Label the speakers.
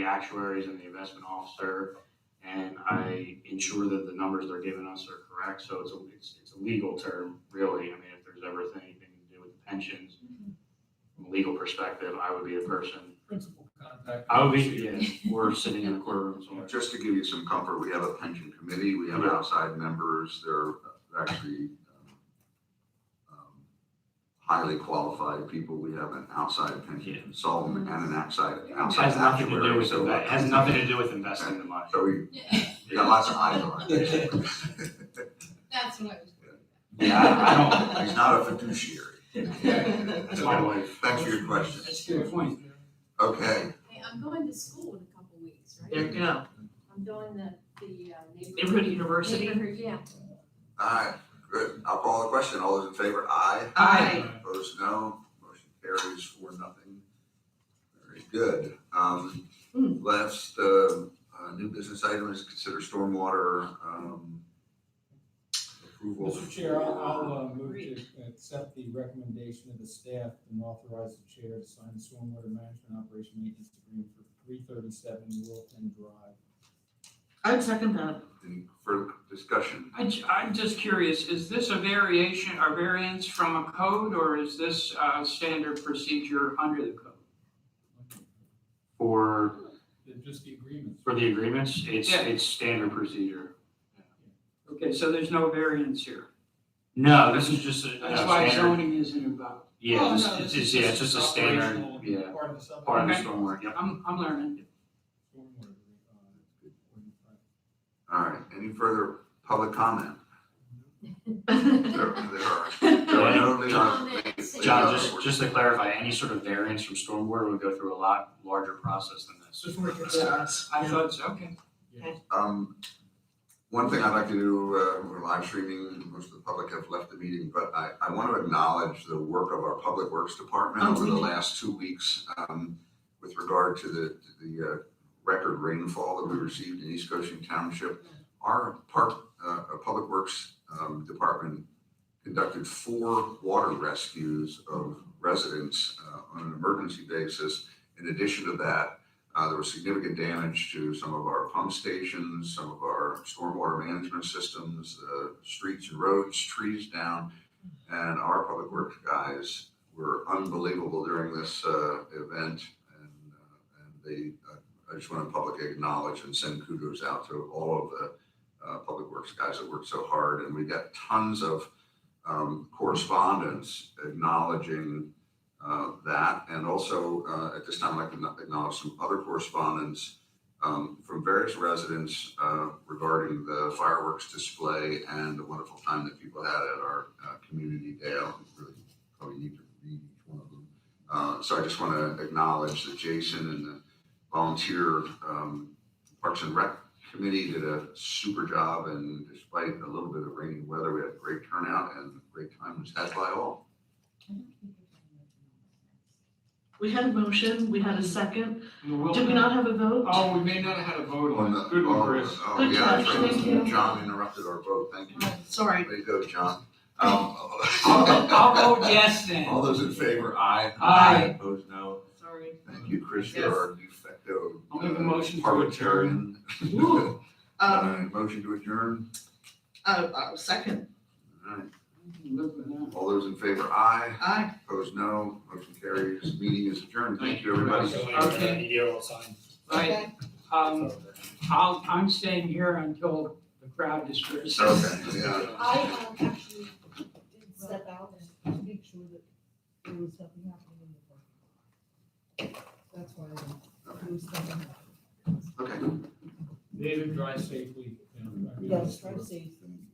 Speaker 1: the actuaries and the investment officer, and I ensure that the numbers they're giving us are correct, so it's a, it's, it's a legal term, really, I mean, if there's ever anything to do with the pensions, from a legal perspective, I would be the person,
Speaker 2: principal contact.
Speaker 1: I would be, yeah, or sitting in a courtroom somewhere.
Speaker 3: Just to give you some comfort, we have a pension committee, we have
Speaker 1: Yeah.
Speaker 3: outside members, they're actually um, um, highly qualified people, we have an outside pension
Speaker 1: Yeah.
Speaker 3: consultant and an outside,
Speaker 1: It
Speaker 3: outside
Speaker 1: Has nothing to do
Speaker 3: actuary,
Speaker 1: with,
Speaker 3: so. uh,
Speaker 1: it has nothing to do with investing the money.
Speaker 3: So we,
Speaker 4: Yeah,
Speaker 3: we got lots of eyes on it.
Speaker 4: That's what I was.
Speaker 1: Yeah, I
Speaker 3: He's not a fiduciary.
Speaker 4: Hey,
Speaker 1: That's my wife.
Speaker 3: Thanks for your question.
Speaker 1: That's a good point.
Speaker 3: Okay,
Speaker 4: I'm going to school in a couple weeks,
Speaker 5: There
Speaker 4: right?
Speaker 5: you go.
Speaker 4: I'm doing the, the uh, neighborhood.
Speaker 5: Neighborhood University.
Speaker 4: Neighborhood, yeah.
Speaker 3: all right, good. I'll call the question. All those in favor, aye.
Speaker 5: Aye.
Speaker 3: Opposed, no. Motion carries four, nothing. Very good. Um, last, uh, uh, new business item is consider stormwater, um, approval.
Speaker 2: Mr. Chair, I'll, I'll
Speaker 3: for-
Speaker 2: uh, move to accept the recommendation of the staff and authorize the chair to sign the stormwater management operation maintenance agreement for three thirty-seven Wilton Drive.
Speaker 5: I'd second that.
Speaker 3: Any further discussion?
Speaker 6: I, am just curious, is this a variation, a variance from a code, or is this uh standard procedure under the code?
Speaker 1: For,
Speaker 2: They're Just the agreements.
Speaker 1: for the agreements, it's,
Speaker 6: Yeah.
Speaker 1: it's standard procedure.
Speaker 6: Okay, so there's no variance here.
Speaker 1: No, this is just a, no,
Speaker 6: That's why
Speaker 1: standard,
Speaker 6: zoning isn't involved.
Speaker 1: yeah,
Speaker 2: Well,
Speaker 1: this,
Speaker 2: Oh, no,
Speaker 1: it's,
Speaker 2: this
Speaker 1: it's-
Speaker 2: is
Speaker 1: yeah, it's just a standard,
Speaker 2: operational
Speaker 1: yeah,
Speaker 2: Part of the subdivision.
Speaker 1: part of
Speaker 6: Okay.
Speaker 1: the stormwater, yep.
Speaker 6: I'm, I'm learning.
Speaker 2: Stormwater, uh, ordinance.
Speaker 3: All right, any further public comment? There, there are, there are
Speaker 4: Comment,
Speaker 3: no, there are-
Speaker 4: say-
Speaker 1: John, just, just to clarify, any sort of variance from stormwater would go through a lot larger process than this.
Speaker 6: I thought so, okay.
Speaker 3: Um, one thing I'd like to do, uh, we're live streaming, most of the public have left the meeting, but I, I want to acknowledge the work of our Public Works Department
Speaker 5: Oh,
Speaker 3: over the
Speaker 5: yeah.
Speaker 3: last two weeks, um, with regard to the, to the, uh, record rainfall that we received in East Goshen Township. Our park, uh, uh, Public Works, um, Department conducted four water rescues of residents, uh, on an emergency basis. In addition to that, uh, there was significant damage to some of our pump stations, some of our stormwater management systems, uh, streets and roads, trees down. And our public works guys were unbelievable during this, uh, event. And, uh, and they, uh, I just want to publicly acknowledge and send kudos out to all of the, uh, public works guys that worked so hard. And we got tons of, um, correspondence acknowledging, uh, that. And also, uh, at this time, I'd like to acknowledge some other correspondence um, from various residents uh, regarding the fireworks display and the wonderful time that people had at our uh, community day. I don't really probably need to read each one of them. Uh, So I just want to acknowledge that Jason and the volunteer um, Parks and Rec Committee did a super job. And despite a little bit of rainy weather, we had great turnout and a great time was had by all.
Speaker 5: We had a motion, we had a second.
Speaker 6: We will-
Speaker 5: Did we not have a vote?
Speaker 6: Oh, we may not have had a vote
Speaker 3: On
Speaker 6: on
Speaker 3: the-
Speaker 6: it. Good one,
Speaker 3: oh,
Speaker 6: Chris.
Speaker 3: Oh,
Speaker 5: Good
Speaker 3: yeah,
Speaker 5: catch,
Speaker 3: that's
Speaker 5: thank
Speaker 3: right.
Speaker 5: you.
Speaker 3: John interrupted our vote, thank you.
Speaker 5: Oh, Sorry.
Speaker 3: There you go, John. Um,
Speaker 6: I'll vote- I'll vote yes then.
Speaker 3: All those in favor, aye.
Speaker 6: Aye.
Speaker 3: Opposed, no.
Speaker 5: Sorry.
Speaker 3: Thank you, Chris, you're our de facto.
Speaker 6: I'll make a
Speaker 3: uh,
Speaker 6: motion to
Speaker 3: parliamentarian.
Speaker 5: Woo.
Speaker 3: Uh,
Speaker 5: Um,
Speaker 3: motion to adjourn.
Speaker 5: uh, uh, second,
Speaker 3: All right.
Speaker 6: I can live with that.
Speaker 3: All those in favor, aye.
Speaker 5: aye.
Speaker 3: Opposed, no. Motion carries. Meeting is adjourned. Thank
Speaker 6: Thank
Speaker 3: you,
Speaker 6: you very
Speaker 3: everybody.
Speaker 6: Okay. Right, um, I'll, I'm staying here until the crowd disperses.
Speaker 3: Okay, yeah.
Speaker 7: I um, actually did step out and make sure that there was nothing happening in the parking lot. That's why I there was nothing happening.
Speaker 3: Okay.
Speaker 2: David, drive safely. and I really-
Speaker 7: Yes, try to save.